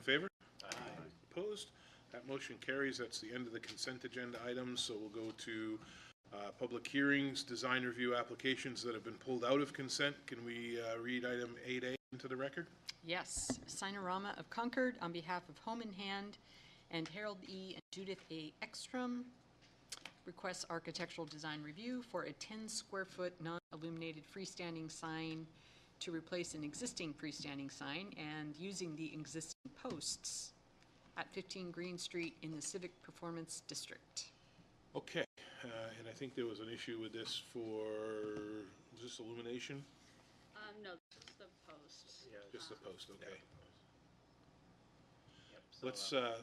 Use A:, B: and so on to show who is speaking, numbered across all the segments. A: favor? Opposed? That motion carries. That's the end of the consent agenda items, so we'll go to uh, public hearings, design review applications that have been pulled out of consent. Can we uh, read item 8A into the record?
B: Yes, Sinorama of Concord on behalf of Home in Hand and Harold E. and Judith A. Ekstrom requests architectural design review for a 10-square-foot non-illuminated freestanding sign to replace an existing freestanding sign and using the existing posts at 15 Green Street in the Civic Performance District.
A: Okay, uh, and I think there was an issue with this for, was this illumination?
C: Um, no, just the posts.
A: Just the post, okay.
D: Yep, so,
A: Let's,
D: uh,
A: uh,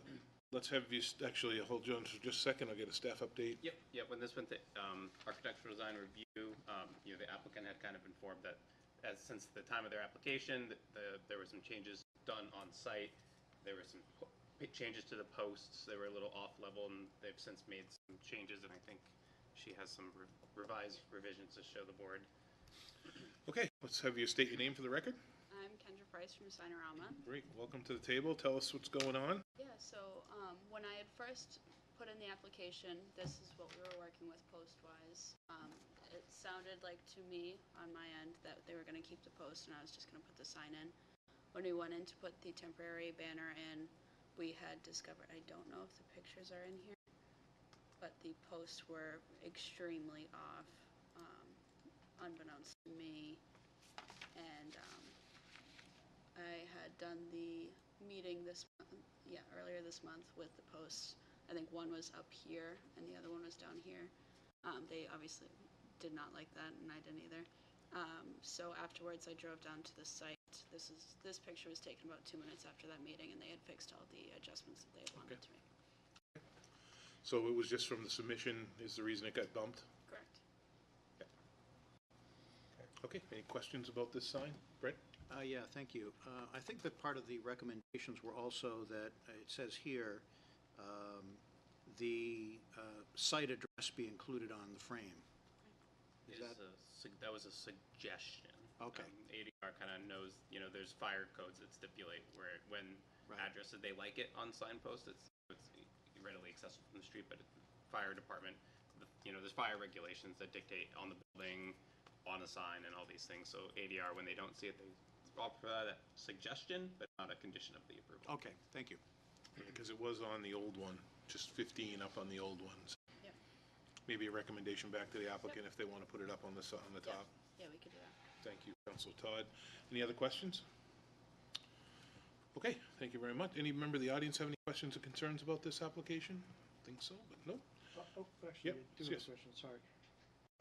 A: let's have you, st- actually, hold on for just a second, I'll get a staff update.
D: um, Yep, yep, when this went to um, architectural design review, um, you know, the applicant had kind of informed that as, since the time of their application, that the- there were some changes done on site. There were some po- big changes to the posts, they were a little off level, and they've since made some changes, and I think she has some re- revised revisions to show the board.
A: Okay, let's have you state your name for the record.
C: I'm Kendra Price from Sinorama.
A: Great, welcome to the table, tell us what's going on.
C: Yeah, so, um, when I had first put in the application, this is what we were working with post-wise. Um, it sounded like to me, on my end, that they were gonna keep the post and I was just gonna put the sign in. When we went in to put the temporary banner in, we had discovered, I don't know if the pictures are in here, but the posts were extremely off, um, unbeknownst to me. And, um, I had done the meeting this, mon- yeah, earlier this month with the posts. I think one was up here and the other one was down here. Um, they obviously did not like that and I didn't either. Um, so afterwards I drove down to the site. This is, this picture was taken about two minutes after that meeting and they had fixed all the adjustments that they had wanted to make.
A: So it was just from the submission is the reason it got bumped?
C: Correct.
A: Okay, any questions about this sign? Brett?
E: Uh, Yeah, thank you. Uh, I think that part of the recommendations were also that, uh, it says here, um, the uh, site address be included on the frame. Is
D: It
E: that-
D: a sug- That was a suggestion.
E: Okay.
D: Um, ADR kind of knows, you know, there's fire codes that stipulate where, when
E: Right.
D: addresses, they like it on signposts, it's, it's readily accessible from the street, but fire department, the- you know, there's fire regulations that dictate on the building, on the sign and all these things, so ADR, when they don't see it, they offer that suggestion, but not a condition of the approval.
E: Okay, thank you.
A: Because it was on the old one, just 15 up on the old ones.
C: Yep.
A: Maybe a recommendation back to the applicant if they want to put it up on the, s- on the
C: Yeah.
A: top.
C: Yeah, we could do that.
A: Thank you, Council Todd. Any other questions? Okay, thank you very much. Any member of the audience have any questions or concerns about this application? Think so, but no.
F: Oh, oh,
A: Yep,
F: actually, I do have
A: yes.
F: a question, sorry.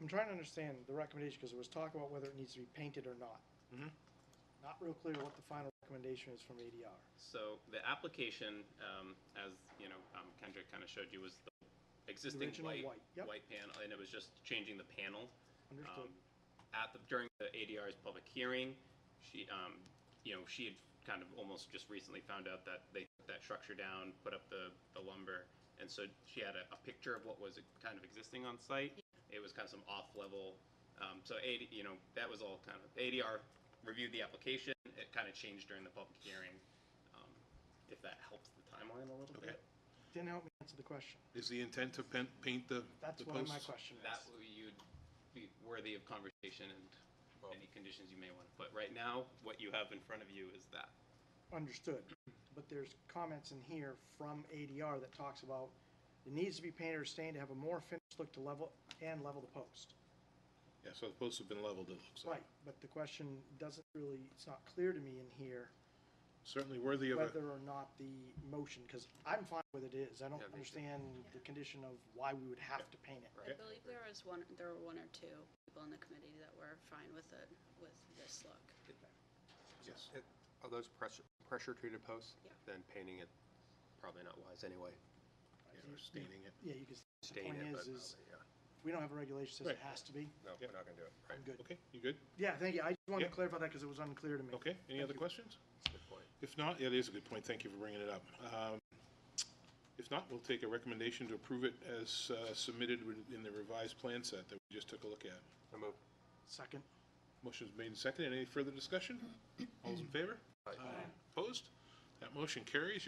F: I'm trying to understand the recommendation, because there was talk about whether it needs to be painted or not.
A: Mhm.
F: Not real clear what the final recommendation is from ADR.
D: So the application, um, as, you know, um, Kendrick kind of showed you, was the existing
F: original
D: white,
F: white, yep.
D: white panel, and it was just changing the panel.
F: Understood.
D: Um, At the, during the ADR's public hearing, she, um, you know, she had kind of almost just recently found out that they took that structure down, put up the, the lumber. And so she had a, a picture of what was kind of existing on site. It was kind of some off-level, um, so AD, you know, that was all kind of, ADR reviewed the application. It kind of changed during the public hearing, um, if that helps the timeline a little
A: Okay.
D: bit.
F: Didn't help me answer the question.
A: Is the intent to pen- paint the
F: That's
A: the
F: why my
A: posts?
F: question
D: That
F: is.
D: would- you'd be worthy of conversation and any conditions you may want to put. Right now, what you have in front of you is that.
F: Understood. But there's comments in here from ADR that talks about it needs to be painted or stained to have a more finished look to level, and level the post.
A: Yeah, so the posts have been leveled, it looks like.
F: Right, but the question doesn't really, it's not clear to me in here
A: Certainly worthy of a.
F: whether or not the motion, because I'm fine with it is. I don't
D: Yeah, me too.
F: understand the condition of why we would have to paint it.
C: I believe there was one, there were one or two people in the committee that were fine with it, with this look.
A: Yes.
G: It- Are those pressure, pressure-treated posts?
C: Yeah.
G: Then painting it, probably not wise anyway.
A: Yeah, we're Staining it.
F: Yeah, you can, the
G: Stain
F: point
G: it,
F: is,
G: but
F: is
G: probably, yeah.
F: we don't have a regulation that says
A: Right.
F: it has to be.
G: No, we're not gonna do it.
F: I'm good.
A: Okay, you good?
F: Yeah, thank you. I just wanted to
A: Yeah.
F: clarify that because it was unclear to me.
A: Okay, any other questions?
G: Good point.
A: If not, yeah, it is a good point, thank you for bringing it up. Um, If not, we'll take a recommendation to approve it as uh, submitted with- in the revised plan set that we just took a look at.
G: So moved.
F: Second.
A: Motion's made and seconded, any further discussion? All's in favor? Opposed? That motion carries.